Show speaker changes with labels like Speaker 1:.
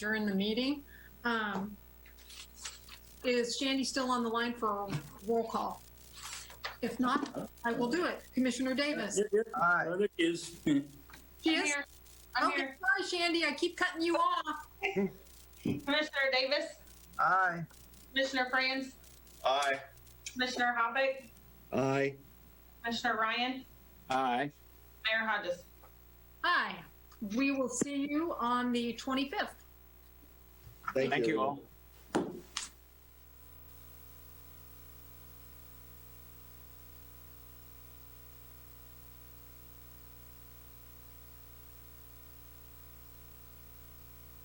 Speaker 1: during the meeting. Um, Is Shandy still on the line for a roll call? If not, I will do it. Commissioner Davis?
Speaker 2: Aye.
Speaker 3: There it is.
Speaker 1: She
Speaker 4: I'm
Speaker 1: is?
Speaker 4: here. I'm
Speaker 1: Okay,
Speaker 4: here.
Speaker 1: sorry, Shandy, I keep cutting you off.
Speaker 4: Commissioner Davis,
Speaker 2: Aye.
Speaker 4: Commissioner Franz,
Speaker 5: Aye.
Speaker 4: Commissioner Hoppick,
Speaker 6: Aye.
Speaker 4: Commissioner Ryan,
Speaker 3: Aye.
Speaker 4: Mayor Hodges.
Speaker 1: Hi, we will see you on the 25th.
Speaker 3: Thank you all.